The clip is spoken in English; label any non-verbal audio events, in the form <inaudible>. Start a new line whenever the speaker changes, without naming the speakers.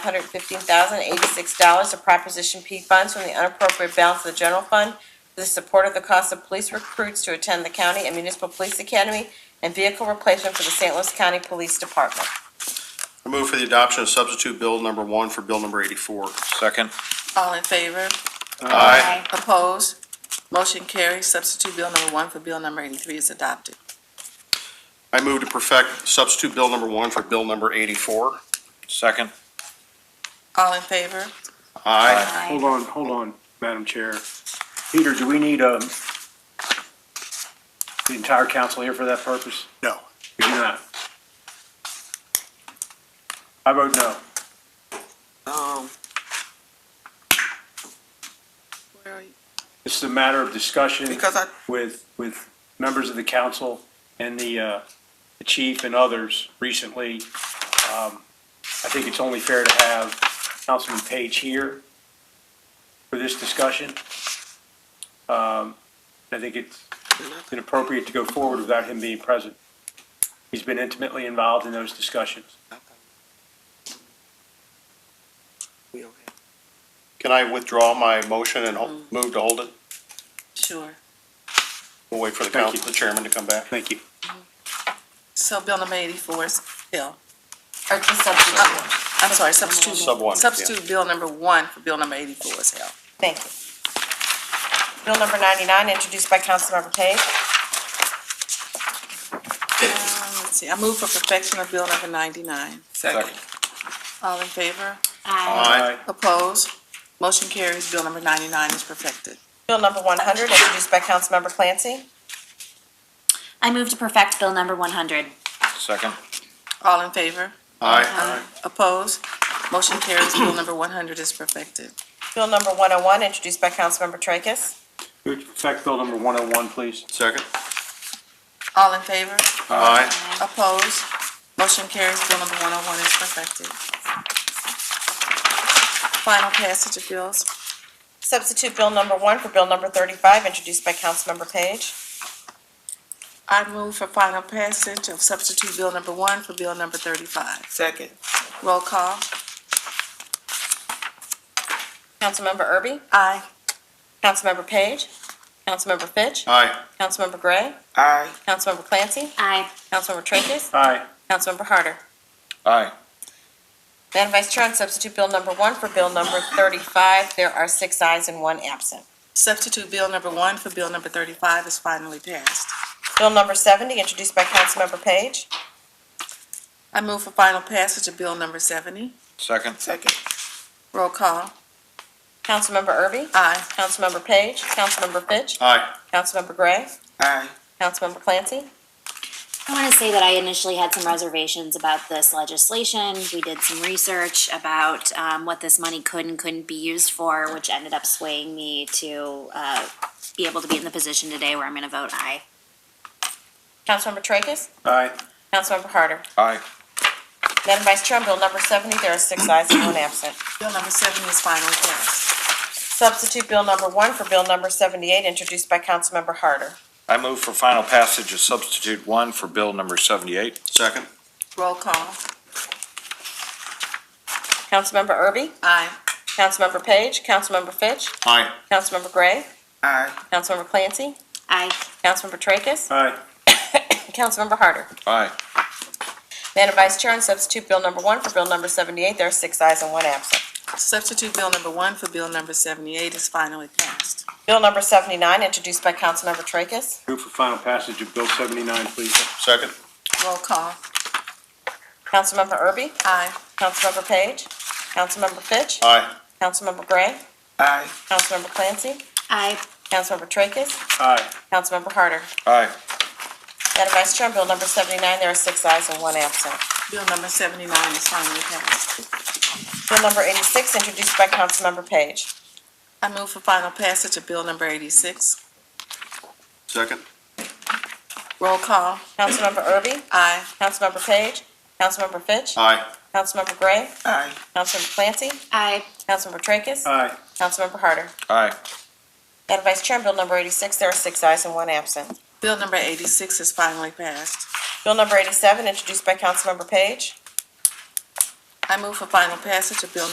hundred fifteen thousand eighty-six dollars of Proposition P funds from the unappropriate balance of the general fund for the support of the cost of police recruits to attend the county and municipal police academy and vehicle replacement for the St. Louis County Police Department.
I move for the adoption of substitute bill number one for bill number eighty-four.
Second.
All in favor?
Aye.
Opposed? Motion carries. Substitute Bill number one for Bill number eighty-three is adopted.
I move to perfect substitute bill number one for bill number eighty-four.
Second.
All in favor?
Aye.
Hold on, hold on, Madam Chair. Peter, do we need, um, the entire council here for that purpose?
No.
We do not. I vote no.
Um. Where are you?
It's a matter of discussion
Because I,
with, with members of the council and the, uh, the chief and others recently. Um, I think it's only fair to have Councilman Page here for this discussion. Um, I think it's inappropriate to go forward without him being present. He's been intimately involved in those discussions.
Can I withdraw my motion and ho- move to hold it?
sure.
We'll wait for the
Thank
council,
you.
the chairman to come back.
Thank you.
So Bill number eighty-four is, Bill,
Or just substitute.
I'm sorry, substitute.
Sub one, yeah.
Substitute Bill number one for Bill number eighty-four is held.
Thank you. Bill number ninety-nine, introduced by Councilmember Page.
Um, Let's see, I move for perfection of Bill number ninety-nine.
Second.
All in favor?
Aye.
Opposed? Motion carries. Bill number ninety-nine is perfected.
Bill number one hundred, introduced by Councilmember Clancy.
I move to perfect Bill number one hundred.
Second.
All in favor?
Aye.
Opposed? Motion carries. Bill number one hundred is perfected.
Bill number one oh one, introduced by Councilmember Tracus.
Would you affect bill number one oh one, please?
Second.
All in favor?
Aye.
Opposed? Motion carries. Bill number one oh one is perfected. Final passage of bills.
Substitute bill number one for bill number thirty-five, introduced by Councilmember Page.
I move for final passage of substitute bill number one for bill number thirty-five. Second. Roll call.
Councilmember Erby?
Aye.
Councilmember Page? Councilmember Fitch?
Aye.
Councilmember Gray?
Aye.
Councilmember Clancy?
Aye.
Councilmember Tracus?
Aye.
Councilmember Harder?
Aye.
Madam Vice Chair, on substitute bill number one for bill number thirty-five, there are six ayes and one absent.
Substitute bill number one for bill number thirty-five is finally passed.
Bill number seventy, introduced by Councilmember Page.
I move for final passage of bill number seventy.
Second.
Second. Roll call.
Councilmember Erby?
Aye.
Councilmember Page? Councilmember Fitch?
Aye.
Councilmember Gray?
Aye.
Councilmember Clancy?
I want to say that I initially had some reservations about this legislation. We did some research about um, what this money could and couldn't be used for, which ended up swaying me to uh, be able to be in the position today where I'm going to vote aye.
Councilmember Tracus?
Aye.
Councilmember Harder?
Aye.
Madam Vice Chair, on bill number seventy, there are six ayes and one absent.
Bill number seventy is finally passed.
Substitute Bill number one for Bill number seventy-eight, introduced by Councilmember Harder.
I move for final passage of substitute one for bill number seventy-eight.
Second.
Roll call.
Councilmember Erby?
Aye.
Councilmember Page? Councilmember Fitch?
Aye.
Councilmember Gray?
Aye.
Councilmember Clancy?
Aye.
Councilmember Tracus? <coughs>
Aye.
Councilmember Harder.
Aye.
Madam Vice Chair, on substitute Bill number one for Bill number seventy-eight, there are six ayes and one absent.
Substitute bill number one for bill number seventy-eight is finally passed.
Bill number seventy-nine, introduced by Councilmember Tracus.
Move for final passage of bill seventy-nine, please.
Second.
Roll call.
Councilmember Erby?
Aye.
Councilmember Page? Councilmember Fitch?
Aye.
Councilmember Gray?
Aye.
Councilmember Clancy?
Aye.
Councilmember Tracus?
Aye.
Councilmember Harder.
Aye.
Madam Vice Chair, on Bill number seventy-nine, there are six ayes and one absent.
Bill number seventy-nine is finally passed.
Bill number eighty-six, introduced by Councilmember Page.
I move for final passage of bill number eighty-six.
Second.
Roll call.
Councilmember Erby?
Aye.
Councilmember Page? Councilmember Fitch?
Aye.
Councilmember Gray?
Aye.
Councilmember Clancy?
Aye.
Councilmember Tracus?
Aye.
Councilmember Harder.
Aye.
Madam Vice Chair, on Bill number eighty-six, there are six ayes and one absent.
Bill number eighty-six is finally passed.
Bill number eighty-seven, introduced by Councilmember Page.
I move for final passage of bill